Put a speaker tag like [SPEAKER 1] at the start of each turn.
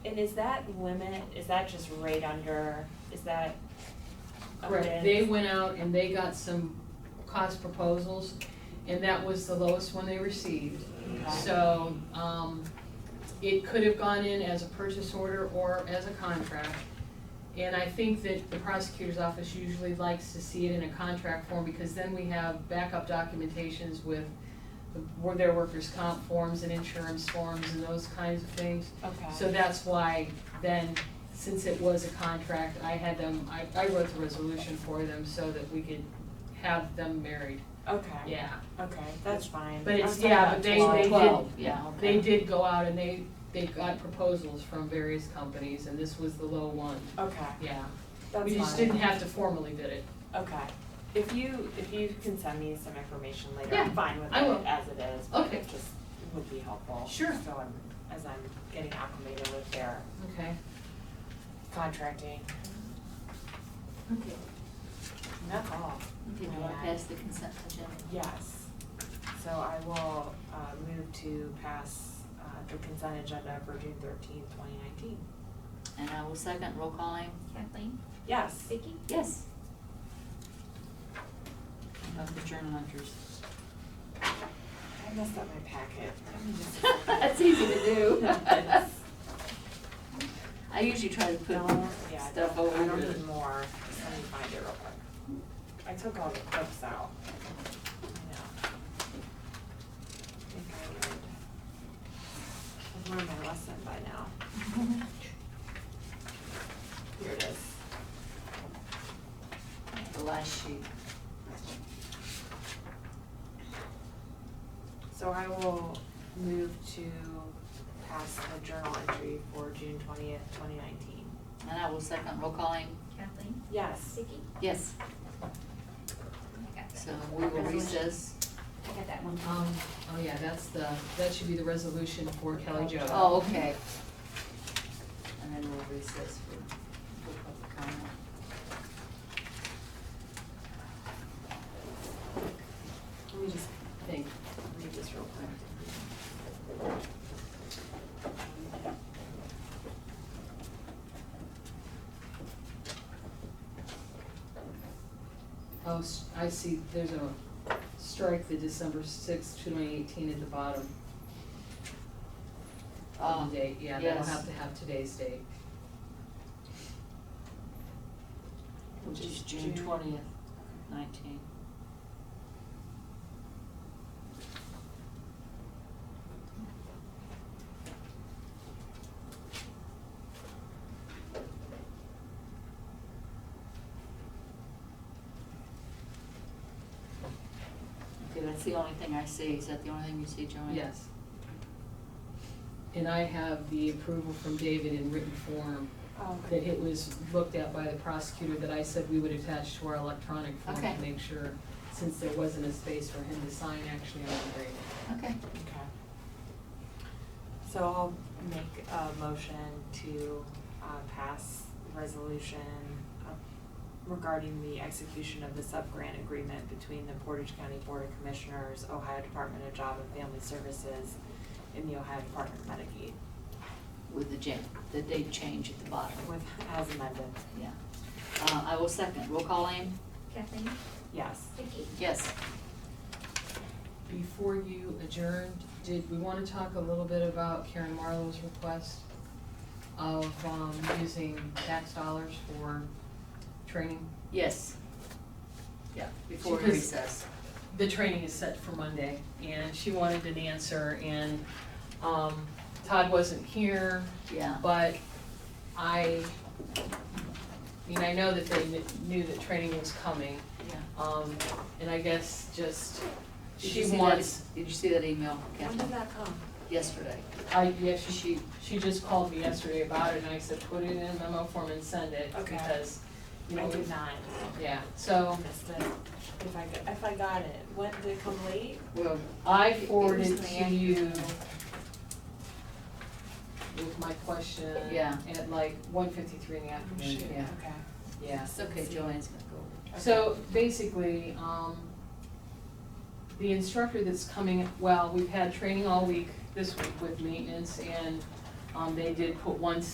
[SPEAKER 1] And is that limit, is that just right under, is that?
[SPEAKER 2] Correct,
[SPEAKER 1] Ogden?
[SPEAKER 2] they went out and they got some cost proposals, and that was the lowest one they received.
[SPEAKER 1] Okay.
[SPEAKER 2] So, um, it could have gone in as a purchase order or as a contract. And I think that the prosecutor's office usually likes to see it in a contract form, because then we have backup documentations with the- where their workers' comp forms and insurance forms and those kinds of things.
[SPEAKER 1] Okay,
[SPEAKER 2] So that's why then, since it was a contract, I had them, I, I wrote the resolution for them so that we could have them married,
[SPEAKER 1] okay,
[SPEAKER 2] yeah.
[SPEAKER 1] okay, that's fine.
[SPEAKER 2] But
[SPEAKER 1] I
[SPEAKER 2] it's,
[SPEAKER 1] was talking
[SPEAKER 2] yeah,
[SPEAKER 1] about
[SPEAKER 2] but they,
[SPEAKER 1] twelve.
[SPEAKER 2] they did,
[SPEAKER 3] Twelve, yeah,
[SPEAKER 2] they
[SPEAKER 3] okay.
[SPEAKER 2] did go out and they, they got proposals from various companies and this was the low one,
[SPEAKER 1] Okay,
[SPEAKER 2] yeah.
[SPEAKER 1] that's
[SPEAKER 2] We just
[SPEAKER 1] fine.
[SPEAKER 2] didn't have to formally bid it.
[SPEAKER 1] Okay, if you, if you can send me some information later,
[SPEAKER 2] Yeah,
[SPEAKER 1] I'm fine with
[SPEAKER 2] I
[SPEAKER 1] it
[SPEAKER 2] will.
[SPEAKER 1] as it is, but
[SPEAKER 2] Okay.
[SPEAKER 1] it just would be helpful.
[SPEAKER 2] Sure.
[SPEAKER 1] So I'm, as I'm getting acclimated with their
[SPEAKER 2] Okay.
[SPEAKER 1] contracting,
[SPEAKER 3] Okay,
[SPEAKER 1] And that's all,
[SPEAKER 3] okay, we want to pass the consent agenda.
[SPEAKER 1] yes. So I will, uh, move to pass, uh, the consent agenda for June thirteenth, twenty nineteen.
[SPEAKER 3] And I will second, roll calling.
[SPEAKER 4] Kathleen?
[SPEAKER 1] Yes.
[SPEAKER 4] Vicky?
[SPEAKER 3] Yes. Of the journal hunters.
[SPEAKER 1] I messed up my packet. Let me just-
[SPEAKER 3] That's easy to do.
[SPEAKER 1] Yes.
[SPEAKER 3] I usually try to put
[SPEAKER 1] No, yeah, I
[SPEAKER 3] stuff
[SPEAKER 1] don't, I
[SPEAKER 3] over
[SPEAKER 1] don't
[SPEAKER 3] the.
[SPEAKER 1] need more, Just let me find it real quick. I took all the clips out. I know. I think I learned, I've learned my lesson by now. Here it is.
[SPEAKER 3] The last sheet.
[SPEAKER 1] So I will move to pass the journal entry for June twentieth, twenty nineteen.
[SPEAKER 3] And I will second, roll calling.
[SPEAKER 4] Kathleen?
[SPEAKER 1] Yes.
[SPEAKER 4] Vicky?
[SPEAKER 3] Yes,
[SPEAKER 4] I got that.
[SPEAKER 3] so we will recess.
[SPEAKER 4] I got that one.
[SPEAKER 2] Um, oh yeah, that's the, that should be the resolution for Kelly Jo.
[SPEAKER 3] Oh, okay. And then we'll recess for, for public comment.
[SPEAKER 1] Let me just
[SPEAKER 2] Thank you.
[SPEAKER 1] read this real quick.
[SPEAKER 2] Oh, s- I see, there's a strike the December sixth, twenty eighteen at the bottom.
[SPEAKER 3] Ah,
[SPEAKER 2] Of the date, yeah, that'll
[SPEAKER 3] yes.
[SPEAKER 2] have to have today's date.
[SPEAKER 3] Which is June twentieth, nineteen. Okay, that's the only thing I see. Is that the only thing you see, Joanne?
[SPEAKER 2] Yes. And I have the approval from David in written form,
[SPEAKER 1] Oh,
[SPEAKER 2] that it was looked at by the prosecutor, that I said we would attach to our electronic form
[SPEAKER 3] Okay.
[SPEAKER 2] to make sure, since there wasn't a space for him to sign actually on the agreement.
[SPEAKER 3] Okay.
[SPEAKER 1] Okay. So I'll make a motion to uh, pass resolution uh, regarding the execution of the sub-grant agreement between the Portage County Board of Commissioners, Ohio Department of Job and Family Services, and the Ohio Department of Medicaid,
[SPEAKER 3] With the ja- the date change at the bottom.
[SPEAKER 1] with, as amended,
[SPEAKER 3] Yeah. Uh, I will second. Roll call aim?
[SPEAKER 4] Kathleen?
[SPEAKER 1] yes.
[SPEAKER 4] Vicky?
[SPEAKER 3] Yes.
[SPEAKER 2] Before you adjourned, did we want to talk a little bit about Karen Marlowe's request of um, using tax dollars for training?
[SPEAKER 3] Yes. Yeah, before
[SPEAKER 2] Because-
[SPEAKER 3] recess.
[SPEAKER 2] The training is set for Monday, and she wanted an answer, and um, Todd wasn't here,
[SPEAKER 3] Yeah,
[SPEAKER 2] but I, I mean, I know that they kn- knew that training was coming,
[SPEAKER 3] yeah.
[SPEAKER 2] um, and I guess just,
[SPEAKER 3] Did
[SPEAKER 2] she
[SPEAKER 3] you see that- e-,
[SPEAKER 2] wants,
[SPEAKER 3] Did you see that email, Kathleen?
[SPEAKER 1] that come?
[SPEAKER 3] Yesterday.
[SPEAKER 2] I, yeah, she
[SPEAKER 3] She,
[SPEAKER 2] She just called me yesterday about it and I said, put it in memo form and send it
[SPEAKER 1] Okay.
[SPEAKER 2] because, you
[SPEAKER 1] I
[SPEAKER 2] know,
[SPEAKER 1] did not,
[SPEAKER 2] yeah,
[SPEAKER 1] I
[SPEAKER 2] so
[SPEAKER 1] missed it, if I, got- if I got it, what, did it come late?
[SPEAKER 3] well,
[SPEAKER 2] I
[SPEAKER 3] was in
[SPEAKER 2] forwarded
[SPEAKER 3] the
[SPEAKER 2] to
[SPEAKER 3] end.
[SPEAKER 2] you with my question
[SPEAKER 3] Yeah.
[SPEAKER 2] at like one fifty-three in the
[SPEAKER 1] Oh,
[SPEAKER 2] afternoon.
[SPEAKER 1] shoot,
[SPEAKER 3] yeah.
[SPEAKER 1] okay.
[SPEAKER 2] Yeah.
[SPEAKER 3] it's okay, Joanne's gonna go over it.
[SPEAKER 2] So basically, um, the instructor that's coming, well, we've had training all week this week with maintenance and, um, they did put one